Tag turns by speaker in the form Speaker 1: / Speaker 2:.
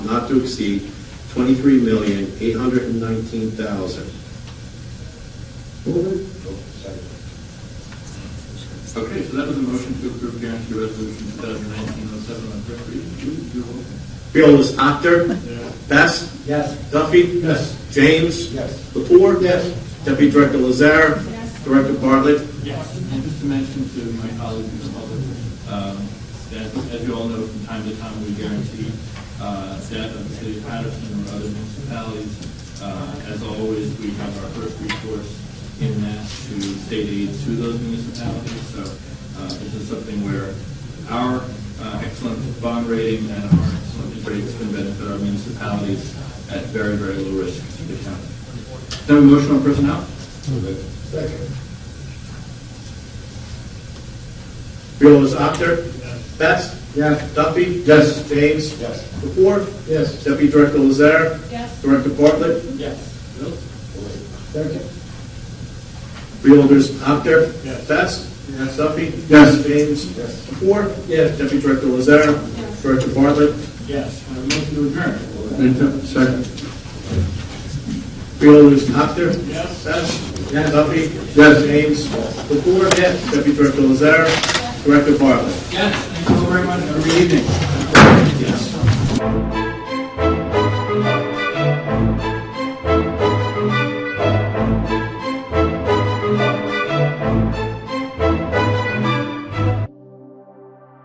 Speaker 1: not to exceed twenty-three million, eight hundred and nineteen thousand.
Speaker 2: Okay, so that was a motion to approve guarantee resolution 2019-07 on first reading. Move your vote.
Speaker 1: Fearless actor,
Speaker 2: Yes.
Speaker 1: Best,
Speaker 3: Yes.
Speaker 1: Duffy. Yes. James.
Speaker 3: Yes.
Speaker 1: Lepore. Yes. Deputy Director Lazar. Yes. Director Bartlett.
Speaker 2: And just to mention to my colleagues in the public, um, that as you all know, from time to time, we guarantee uh, debt of the city of Patterson or other municipalities. Uh, As always, we have our first recourse in that to state aid to those municipalities. So uh, this is something where our uh, excellent bond rating and our excellent interest rates can benefit our municipalities at very, very low risk to the county. Then a motion on personnel?
Speaker 1: Fearless actor, Best.
Speaker 3: Yes.
Speaker 1: Duffy.
Speaker 3: Yes.
Speaker 1: James.
Speaker 3: Yes.
Speaker 1: Lepore.
Speaker 3: Yes.
Speaker 1: Deputy Director Lazar.
Speaker 4: Yes.
Speaker 1: Director Bartlett.
Speaker 2: Yes. Bill?
Speaker 3: Second.
Speaker 1: Freeholders actor,
Speaker 2: Yes.
Speaker 1: Best.
Speaker 3: Yes.
Speaker 1: Duffy.
Speaker 3: Yes.
Speaker 1: James.
Speaker 3: Yes.
Speaker 1: Lepore. Yes. Deputy Director Lazar.
Speaker 4: Yes.
Speaker 1: Director Bartlett.
Speaker 2: Yes. I motion to adjourn.
Speaker 1: Second. Freeholders actor,
Speaker 2: Yes.
Speaker 1: Best. Duffy.
Speaker 3: Yes.
Speaker 1: James. Lepore. Yes. Deputy Director Lazar. Director Bartlett.
Speaker 2: Yes, thank you all very much. Have a good evening.
Speaker 1: Yes.